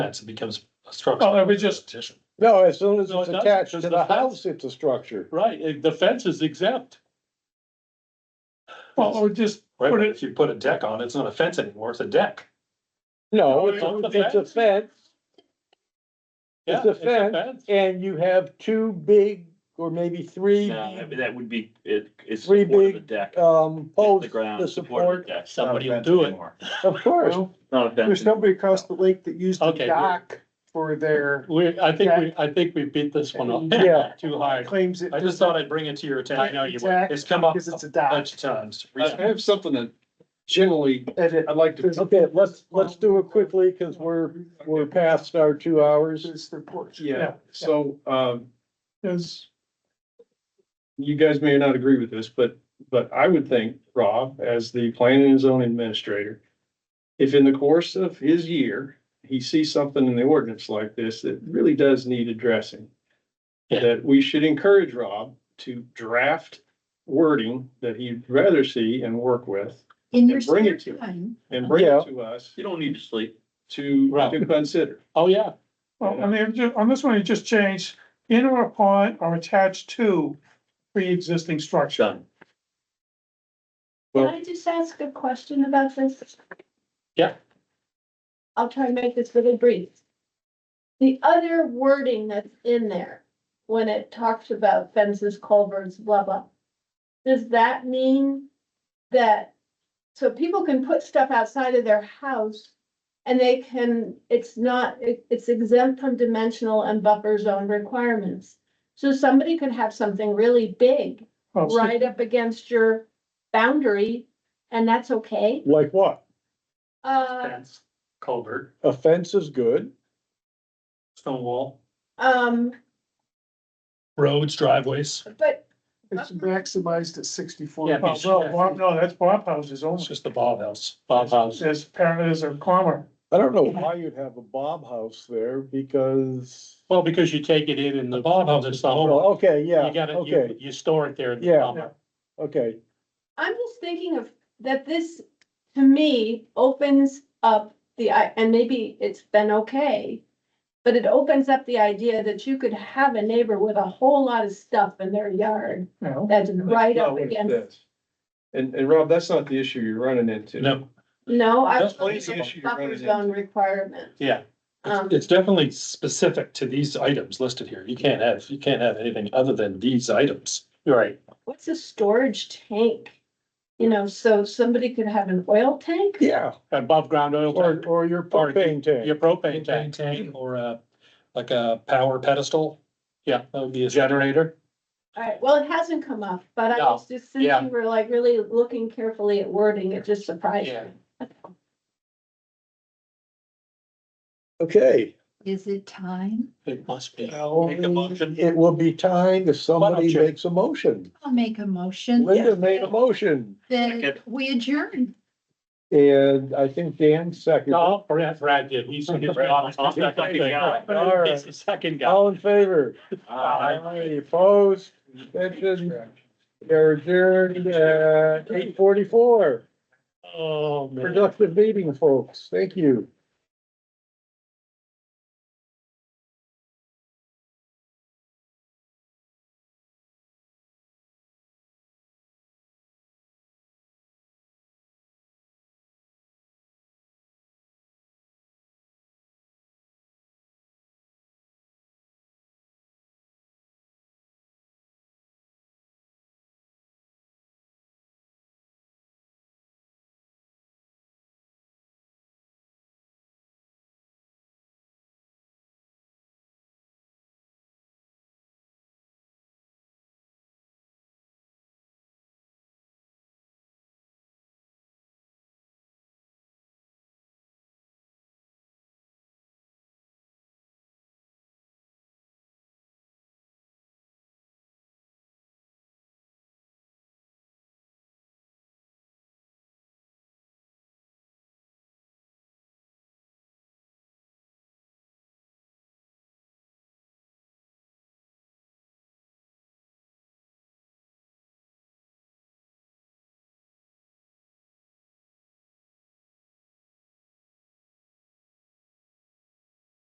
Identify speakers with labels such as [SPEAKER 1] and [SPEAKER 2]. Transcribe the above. [SPEAKER 1] fence, it becomes a structure.
[SPEAKER 2] Well, it was just,
[SPEAKER 1] Addition.
[SPEAKER 3] No, as soon as
[SPEAKER 2] No,
[SPEAKER 3] it's
[SPEAKER 2] it doesn't,
[SPEAKER 3] attached to
[SPEAKER 2] because
[SPEAKER 3] the
[SPEAKER 2] the fence-
[SPEAKER 3] house, it's a structure.
[SPEAKER 2] right, eh, the fence is exempt. Well, or just
[SPEAKER 1] Right,
[SPEAKER 2] put
[SPEAKER 1] but
[SPEAKER 2] it,
[SPEAKER 1] if you put a deck on, it's not a fence anymore, it's a deck.
[SPEAKER 3] No,
[SPEAKER 2] No,
[SPEAKER 3] it's,
[SPEAKER 2] it's a
[SPEAKER 3] it's a
[SPEAKER 2] fence.
[SPEAKER 3] fence
[SPEAKER 2] yeah.
[SPEAKER 3] It's a fence. and you have two big or maybe three,
[SPEAKER 4] No, I mean, that would be, it, it's.
[SPEAKER 3] Three
[SPEAKER 4] support of
[SPEAKER 3] big,
[SPEAKER 4] The deck.
[SPEAKER 3] um,
[SPEAKER 4] Hit
[SPEAKER 3] posts
[SPEAKER 4] The ground.
[SPEAKER 3] to
[SPEAKER 4] support of
[SPEAKER 3] support.
[SPEAKER 4] the deck.
[SPEAKER 2] Somebody
[SPEAKER 4] Not a
[SPEAKER 2] will do
[SPEAKER 4] fence
[SPEAKER 2] it.
[SPEAKER 4] anymore.
[SPEAKER 3] Of course,
[SPEAKER 4] Not a fence.
[SPEAKER 5] There's nobody across the lake that used the
[SPEAKER 2] Okay, good.
[SPEAKER 5] dock for their
[SPEAKER 2] We, I think we, I think we beat this one up
[SPEAKER 3] yeah.
[SPEAKER 2] too hard.
[SPEAKER 5] claims. it
[SPEAKER 1] I just thought I'd bring it to your attention.
[SPEAKER 2] I know you would.
[SPEAKER 5] Exact,
[SPEAKER 1] It's come up
[SPEAKER 5] Because it's
[SPEAKER 1] a
[SPEAKER 5] a dock.
[SPEAKER 1] bunch of times.
[SPEAKER 6] I have something that generally,
[SPEAKER 5] And it-
[SPEAKER 6] I'd like to,
[SPEAKER 3] Okay, let's, let's do it quickly because we're, we're past our two hours.
[SPEAKER 5] It's their porch.
[SPEAKER 6] yeah, so, um,
[SPEAKER 5] Because
[SPEAKER 6] you guys may not agree with this, but, but I would think, Rob, as the planning and zoning administrator, if in the course of his year, he sees something in the ordinance like this that really does need addressing,
[SPEAKER 2] Yeah.
[SPEAKER 6] that we should encourage Rob to draft wording that he'd rather see and work with
[SPEAKER 7] In your
[SPEAKER 6] And bring
[SPEAKER 7] spare
[SPEAKER 6] it to him.
[SPEAKER 7] time,
[SPEAKER 6] and bring
[SPEAKER 3] Yeah.
[SPEAKER 6] it to us
[SPEAKER 4] You don't need to sleep.
[SPEAKER 6] to, to
[SPEAKER 2] Right.
[SPEAKER 6] consider.
[SPEAKER 2] Oh, yeah,
[SPEAKER 5] Well, I mean, ju- on this one, you just changed in or upon or attached to pre-existing structure.
[SPEAKER 4] Done.
[SPEAKER 7] can
[SPEAKER 6] Well-
[SPEAKER 7] I just ask a question about this?
[SPEAKER 2] Yeah.
[SPEAKER 7] I'll try and make this really brief. The other wording that's in there, when it talks about fences, culverts, blah, blah. Does that mean that, so people can put stuff outside of their house? And they can, it's not, it- it's exempt from dimensional and buffer zone requirements. So somebody could have something really big
[SPEAKER 5] Well, so-
[SPEAKER 7] right up against your boundary, and that's okay.
[SPEAKER 3] Like what?
[SPEAKER 7] Uh,
[SPEAKER 1] Fence, culvert,
[SPEAKER 3] A fence is good.
[SPEAKER 1] stone wall,
[SPEAKER 7] um,
[SPEAKER 1] roads, driveways.
[SPEAKER 7] but
[SPEAKER 5] It's maximized at sixty-four.
[SPEAKER 1] Yeah,
[SPEAKER 5] Well,
[SPEAKER 1] but-
[SPEAKER 5] no, Bob- no, that's Bob houses
[SPEAKER 1] It's
[SPEAKER 5] only.
[SPEAKER 1] just the Bob house.
[SPEAKER 2] Bob House.
[SPEAKER 5] There's, apparently there's a comma.
[SPEAKER 3] I don't know why you'd have a Bob house there because,
[SPEAKER 2] Well, because you take it in in the
[SPEAKER 1] Bob House
[SPEAKER 2] the
[SPEAKER 1] is the Oh,
[SPEAKER 2] summer.
[SPEAKER 3] well, okay, yeah,
[SPEAKER 2] You gotta, you,
[SPEAKER 3] okay,
[SPEAKER 2] you store it there in the
[SPEAKER 3] Yeah.
[SPEAKER 2] summer.
[SPEAKER 3] okay.
[SPEAKER 7] I'm just thinking of, that this, to me, opens up the, i- and maybe it's been okay. But it opens up the idea that you could have a neighbor with a whole lot of stuff in their yard
[SPEAKER 5] you know?
[SPEAKER 7] that's right
[SPEAKER 6] Not
[SPEAKER 7] up
[SPEAKER 6] what it
[SPEAKER 7] against,
[SPEAKER 6] says. And, and Rob, that's not the issue you're running into.
[SPEAKER 1] No,
[SPEAKER 7] no, I.
[SPEAKER 1] That's
[SPEAKER 6] one issue you're running
[SPEAKER 7] Buffer
[SPEAKER 6] into.
[SPEAKER 7] zone requirement.
[SPEAKER 2] Yeah.
[SPEAKER 7] Um,
[SPEAKER 1] it's definitely specific to these items listed here. You can't have, you can't have anything other than these items.
[SPEAKER 2] Right.
[SPEAKER 7] what's a storage tank? You know, so somebody could have an oil tank?
[SPEAKER 3] Yeah,
[SPEAKER 2] Above ground oil
[SPEAKER 3] or,
[SPEAKER 2] tank,
[SPEAKER 3] or your
[SPEAKER 2] Or you-
[SPEAKER 3] propane
[SPEAKER 2] your
[SPEAKER 3] tank.
[SPEAKER 2] propane tank,
[SPEAKER 1] Tank or a, like a power pedestal. Yeah, that would be a generator.
[SPEAKER 7] Alright, well, it hasn't come up, but I
[SPEAKER 2] No,
[SPEAKER 7] was just, since
[SPEAKER 2] yeah.
[SPEAKER 7] you were like really looking carefully at wording, it just surprised
[SPEAKER 2] Yeah.
[SPEAKER 7] me.
[SPEAKER 3] Okay,
[SPEAKER 8] Is it time?
[SPEAKER 2] it must be. Make a motion.
[SPEAKER 3] it will be time if somebody
[SPEAKER 2] you-
[SPEAKER 3] makes a motion.
[SPEAKER 8] I'll make a motion
[SPEAKER 3] Linda made a motion
[SPEAKER 8] that we adjourn.
[SPEAKER 3] and I think Dan seconded. it.
[SPEAKER 2] No, Brad, Brad did, he's. he's-
[SPEAKER 4] I'll second guy.
[SPEAKER 3] All right.
[SPEAKER 2] He's the second guy.
[SPEAKER 1] Oh,
[SPEAKER 3] All in favor?
[SPEAKER 4] Aye.
[SPEAKER 3] Aye, Opposed, abstentions, they're adjourned at eight forty-four.
[SPEAKER 2] Oh, man.
[SPEAKER 3] Productive meeting, folks. Thank you.